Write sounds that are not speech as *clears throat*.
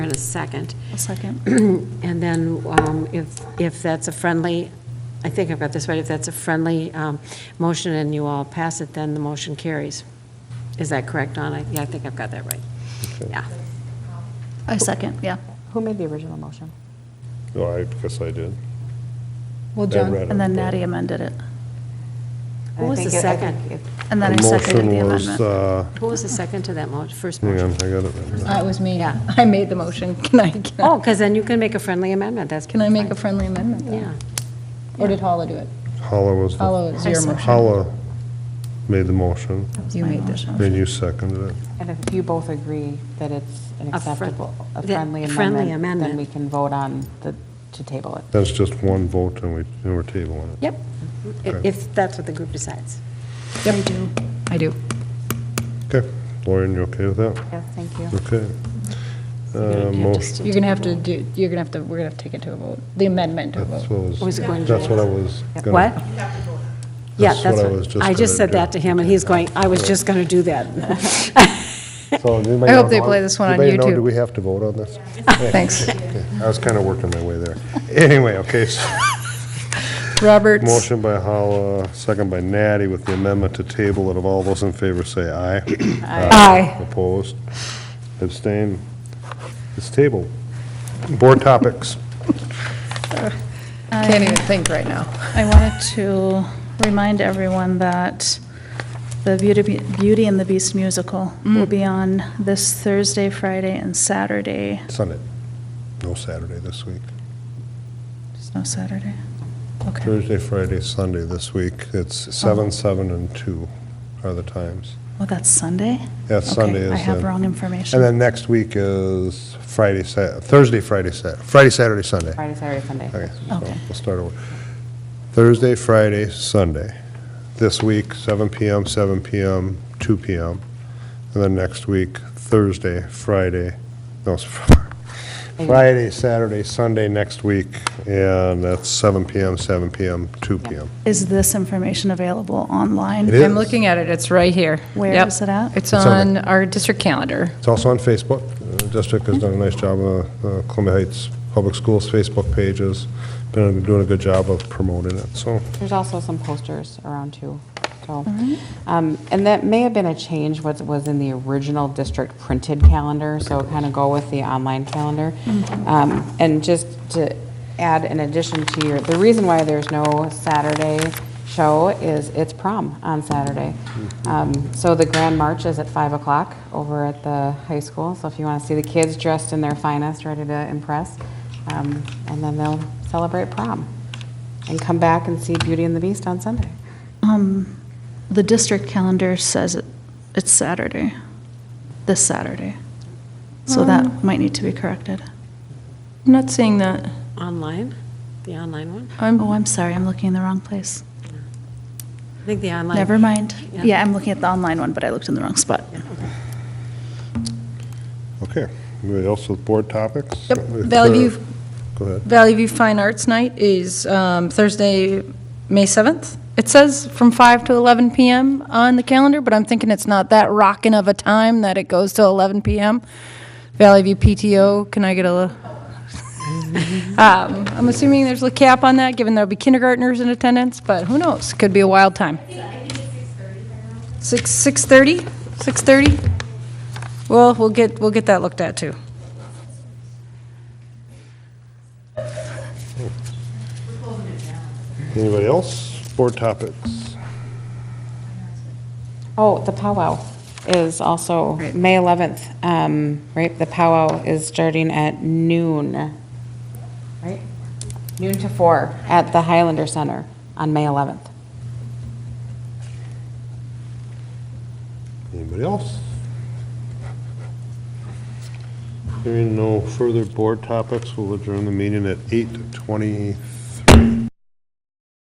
and a second. *clears throat* A second. And then um, if, if that's a friendly, I think I've got this right, if that's a friendly um, motion and you all pass it, then the motion carries. Is that correct, Donna? Yeah, I think I've got that right. Yeah. A second, yeah. Who made the original motion? No, Oh, I guess I did. Well, Then John- read And then it. Natty amended it. Who was I the think it- I second? think it- And then I The seconded the motion was, amendment. uh, Who was the second to that mo, first Hang on, motion? I got it. right now. Uh, It was me. *laughs* I made the motion. Can I, can I- Oh, because then you can make a friendly amendment, that's. can I make a friendly amendment? though? Yeah. Or did Holla do it? Holla was, the- Holla was your motion. Holla made the motion, You made this. then you seconded it. And if you both agree that it's an A fri- acceptable, a that- friendly friendly amendment, amendment. then we can vote on the, to table it. That's just one vote and we, and we're tabling it. Yep, if if that's what the group decides. Yep, I do. I do. Okay, Lauren, you okay with that? Yeah, thank you. Okay. You Uh, have to Motion, still You're take gonna a have to vote. do, you're gonna have to, we're gonna have to take it to a vote, the amendment to a that's vote. what I I was was, going to that's what I was. gonna- What? Yeah, That's that's what I was what, just I just gonna said do. that to him, and he's going, I was just going to do *laughs* that. So anybody I hope know they how- play this one on anybody know, YouTube. do we have to vote on this? Thanks. Okay, I was kind of working my way there. *laughs* Anyway, okay, so Roberts, motion by Holla, second by Natty with the amendment to table it. Of all those in favor, say aye. Uh, Aye. Opposed? Abstain? It's tabled. Board topics. uh, can't even think right now. I wanted to remind everyone that the Beauty Beauty and the Beast musical will be on this Thursday, Friday, and Saturday. Sunday. No Saturday this week. There's no Saturday? Okay, Thursday, Friday, Sunday this week. It's 7, 7, and 2 are the times. well, that's Sunday? Yeah, Sunday Okay, I is have the- wrong information. And then next week is Friday, Sa- Thursday, Friday, Sa- Friday, Saturday, Sunday. Friday, Saturday, Sunday. Okay, so Okay. we'll start over. Thursday, Friday, Sunday. This week, 7 PM, 7 PM, 2 PM. And then next week, Thursday, Friday, no, it's *laughs* Fri- Friday, Saturday, Sunday next week, and that's 7 PM, 7 PM, 2 PM. Is this information available online? It is. I'm looking at it, it's right here. Where Yep. is it at? It's It's on on our district calendar. It's also on Facebook. The District has done a nice job of uh, Columbia Heights Public Schools Facebook pages. Been doing a good job of promoting it, so. There's also some posters around too, so. Um, And that may have been a change, what was in the original district printed calendar, so kind of go with the online calendar. Um, And just to add in addition to your, the reason why there's no Saturday show is it's prom on Saturday. Um, So the grand march is at 5 o'clock over at the high school, so if you want to see the kids dressed in their finest, ready to impress, um, and then they'll celebrate prom and come back and see Beauty and the Beast on Sunday. Um, the district calendar says it, it's Saturday, this Saturday. So that might need to be corrected. I'm not seeing that. Online, the online one? Oh, I'm, I'm sorry, I'm looking in the wrong place. I think the online. Never mind. Yeah. Yeah, I'm looking at the online one, but I looked in the wrong spot. Okay, anybody else with board topics? Yep, If Valley there- View. Go ahead. Valley View Fine Arts Night is um, Thursday, May 7th. It says from 5 to 11 PM on the calendar, but I'm thinking it's not that rockin' of a time that it goes to 11 PM. Valley View PTO, can I get a, li- *laughs* Um, I'm assuming there's a cap on that, given there'll be kindergartners in attendance, but who knows? Could be a wild time. Six, six thirty? Six thirty? Well, we'll get, we'll get that looked at too. Anybody else? Board topics. Oh, the powwow is also May 11th, um, right? The powwow is starting at noon, right? Noon to four at the Highlander Center on May 11th. Anybody else? Hearing no further board topics, we'll adjourn the meeting at 8:23.